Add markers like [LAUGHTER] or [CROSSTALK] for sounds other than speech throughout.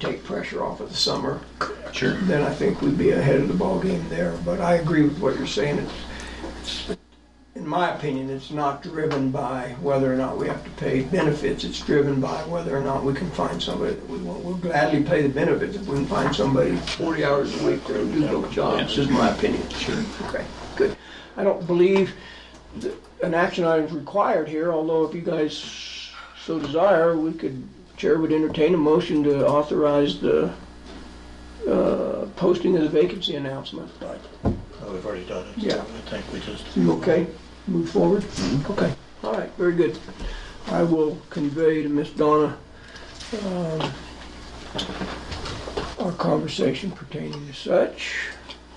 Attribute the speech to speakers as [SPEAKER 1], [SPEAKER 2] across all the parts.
[SPEAKER 1] take pressure off of the summer,
[SPEAKER 2] Sure.
[SPEAKER 1] then I think we'd be ahead of the ballgame there. But I agree with what you're saying. It's, in my opinion, it's not driven by whether or not we have to pay benefits. It's driven by whether or not we can find somebody that we want. We'll gladly pay the benefits if we can find somebody 40 hours a week to do those jobs, is my opinion.
[SPEAKER 2] Sure.
[SPEAKER 1] Okay, good. I don't believe that an action item is required here, although if you guys so desire, we could, Chair would entertain a motion to authorize the uh, posting of the vacancy announcement.
[SPEAKER 3] Oh, We've already done it. so
[SPEAKER 1] Yeah.
[SPEAKER 3] I think we just.
[SPEAKER 1] You okay? Move forward? Okay, all right, very good. I will convey to Miss Donna um, our conversation pertaining to such.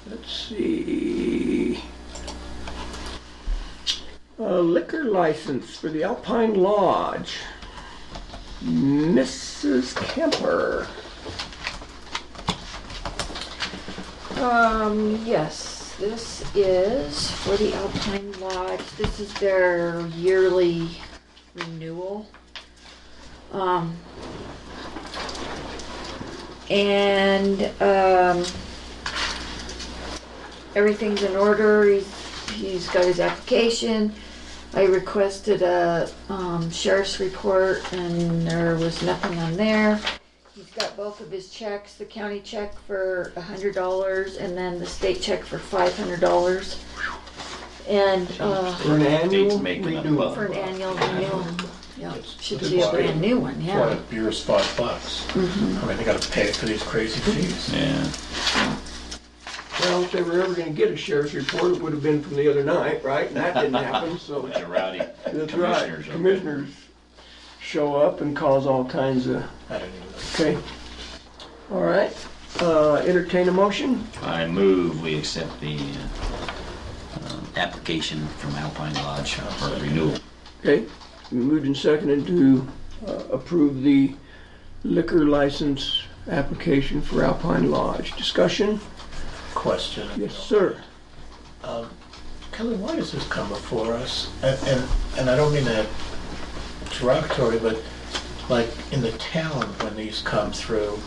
[SPEAKER 1] Let's see. A liquor license for the Alpine Lodge. Mrs. Kemper.
[SPEAKER 4] Um, yes, this is for the Alpine Lodge. This is their yearly renewal. Um, and, um, everything's in order. He's, he's got his application. I requested a, um, sheriff's report and there was nothing on there. He's got both of his checks, the county check for a hundred dollars and then the state check for five hundred dollars. And, uh,
[SPEAKER 1] For an annual
[SPEAKER 2] making up
[SPEAKER 1] renewal.
[SPEAKER 2] a-
[SPEAKER 4] for an annual renewal, yeah, should
[SPEAKER 3] That's
[SPEAKER 4] be a
[SPEAKER 3] why-
[SPEAKER 4] brand new one,
[SPEAKER 3] Why the
[SPEAKER 4] yeah.
[SPEAKER 3] beer's five bucks?
[SPEAKER 1] Mm-hmm.
[SPEAKER 3] I mean, they gotta pay for these crazy fees.
[SPEAKER 2] Yeah.
[SPEAKER 1] Well, if they were ever gonna get a sheriff's report, it would have been from the other night, right? And that didn't happen,
[SPEAKER 2] [LAUGHS]
[SPEAKER 1] so.
[SPEAKER 2] Bunch of rowdy
[SPEAKER 1] That's right.
[SPEAKER 2] commissioners. up there.
[SPEAKER 1] Commissioners show up and cause all kinds of,
[SPEAKER 3] I don't even know.
[SPEAKER 1] okay. All right, uh, entertain a motion.
[SPEAKER 2] I move we accept the uh, um, application from Alpine Lodge for renewal.
[SPEAKER 1] Okay, moved and seconded to uh, approve the liquor license application for Alpine Lodge. Discussion?
[SPEAKER 3] Question. you
[SPEAKER 1] Yes,
[SPEAKER 3] know.
[SPEAKER 1] sir.
[SPEAKER 3] Kelly, why does this come before us? And, and, and I don't mean that derogatory, but like in the town, when these come through,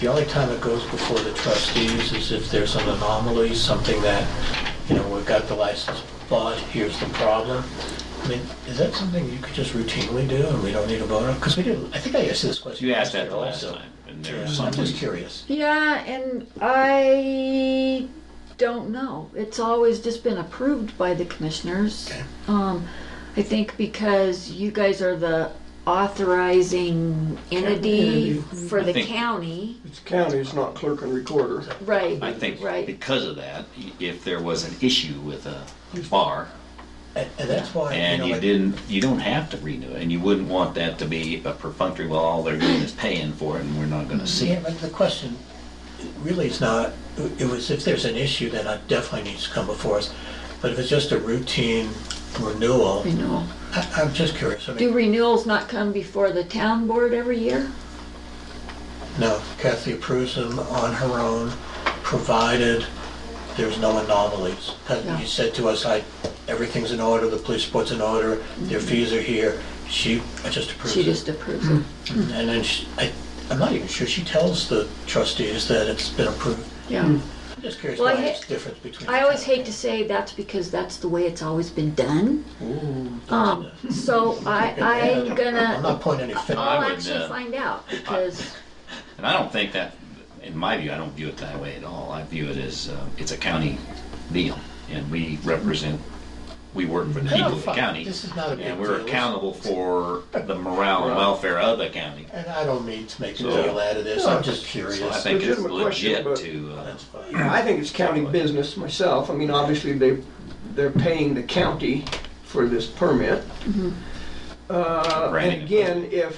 [SPEAKER 3] the only time it goes before the trustees is if there's an anomaly, something that, you know, we've got the license, but here's the problem. I mean, is that something you could just routinely do and we don't need a vote on? Because we didn't, I think I asked this question.
[SPEAKER 2] You asked that the
[SPEAKER 3] last
[SPEAKER 2] last
[SPEAKER 3] year also.
[SPEAKER 2] time, and there
[SPEAKER 3] Yeah,
[SPEAKER 2] was some
[SPEAKER 3] I'm just
[SPEAKER 2] reason.
[SPEAKER 3] curious.
[SPEAKER 4] Yeah, and I don't know. It's always just been approved by the commissioners.
[SPEAKER 3] Okay.
[SPEAKER 4] Um, I think because you guys are the authorizing entity
[SPEAKER 1] Entity.
[SPEAKER 3] Mm-hmm.
[SPEAKER 4] for the
[SPEAKER 2] I think-
[SPEAKER 4] county,
[SPEAKER 1] It's county, it's not clerk and recorder.
[SPEAKER 4] right?
[SPEAKER 2] I think
[SPEAKER 4] Right,
[SPEAKER 2] because of that, i- if there was an issue with a bar
[SPEAKER 3] And, and that's why, you
[SPEAKER 2] and
[SPEAKER 3] know,
[SPEAKER 2] you
[SPEAKER 3] like-
[SPEAKER 2] didn't, you don't have to renew it, and you wouldn't want that to be a perfunctory, well, all they're doing is paying for it, and we're not gonna see
[SPEAKER 3] Yeah,
[SPEAKER 2] it.
[SPEAKER 3] but the question really is not, it was if there's an issue, then it definitely needs to come before us. But if it's just a routine renewal,
[SPEAKER 4] renewal.
[SPEAKER 3] I- I'm just curious. I
[SPEAKER 4] Do
[SPEAKER 3] mean,
[SPEAKER 4] renewals not come before the town board every year?
[SPEAKER 3] no, Kathy approves them on her own, provided there's no anomalies. 'Cause
[SPEAKER 4] Yeah.
[SPEAKER 3] You said to us, like, everything's in order, the police report's in order, their fees are here. She just approves
[SPEAKER 4] Mm-hmm. She
[SPEAKER 3] it. Hmm.
[SPEAKER 4] just approves it.
[SPEAKER 3] And then she, I, I'm not even sure, she tells the trustees that it's been approved.
[SPEAKER 4] Yeah.
[SPEAKER 3] I'm just curious
[SPEAKER 4] Well,
[SPEAKER 3] why
[SPEAKER 4] I ha-
[SPEAKER 3] it's different between.
[SPEAKER 4] I always hate to say that's because that's the way it's always been done.
[SPEAKER 2] Oh,
[SPEAKER 4] Um, so I, I'm
[SPEAKER 3] uh, I'm [LAUGHS]
[SPEAKER 4] gonna,
[SPEAKER 3] not pointing any finger.
[SPEAKER 4] I'll
[SPEAKER 2] would,
[SPEAKER 4] actually
[SPEAKER 2] uh,
[SPEAKER 4] find out because,
[SPEAKER 2] And I don't think that, in my view, I don't view it that way at all. I view it as, uh, it's a county deal, and we represent, we work for the people of the
[SPEAKER 3] fine.
[SPEAKER 2] county.
[SPEAKER 3] This is not a big
[SPEAKER 2] And we're
[SPEAKER 3] deal.
[SPEAKER 2] accountable for the morale and welfare of the county.
[SPEAKER 3] And I don't mean to make a
[SPEAKER 2] So-
[SPEAKER 3] deal out of this, I'm just curious.
[SPEAKER 2] So I think it's
[SPEAKER 1] Legitimate question,
[SPEAKER 2] legit
[SPEAKER 1] but-
[SPEAKER 2] to, uh,
[SPEAKER 3] That's fine.
[SPEAKER 1] I think it's county business myself. I mean, obviously, they, they're paying the county for this permit. Uh,
[SPEAKER 2] Branding.
[SPEAKER 1] And again, if,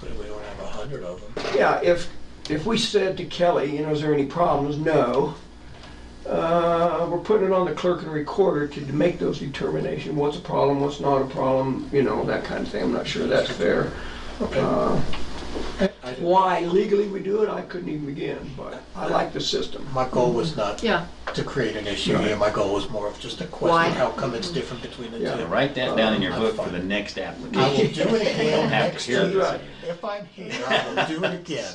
[SPEAKER 3] But We don't have a hundred of them.
[SPEAKER 1] yeah, if, if we said to Kelly, you know, is there any problems? No. Uh, We're putting it on the clerk and recorder to make those determination, what's a problem, what's not a problem, you know, that kind of thing. I'm not sure that's fair. Uh,
[SPEAKER 3] I didn't-
[SPEAKER 1] Why legally we do it, I couldn't even begin, but I like the system.
[SPEAKER 3] My goal was not
[SPEAKER 4] yeah,
[SPEAKER 3] to create an issue here, my goal was more of just a
[SPEAKER 4] Why?
[SPEAKER 3] question, how come it's different between the
[SPEAKER 1] Yeah.
[SPEAKER 3] two?
[SPEAKER 2] write that down
[SPEAKER 1] uh,
[SPEAKER 2] in your
[SPEAKER 3] Um,
[SPEAKER 2] book for the next application.
[SPEAKER 3] I will do it
[SPEAKER 2] You don't
[SPEAKER 3] again
[SPEAKER 2] [LAUGHS] have to
[SPEAKER 3] next
[SPEAKER 2] hear
[SPEAKER 3] year.
[SPEAKER 2] this.
[SPEAKER 3] If I'm here, I will do it again.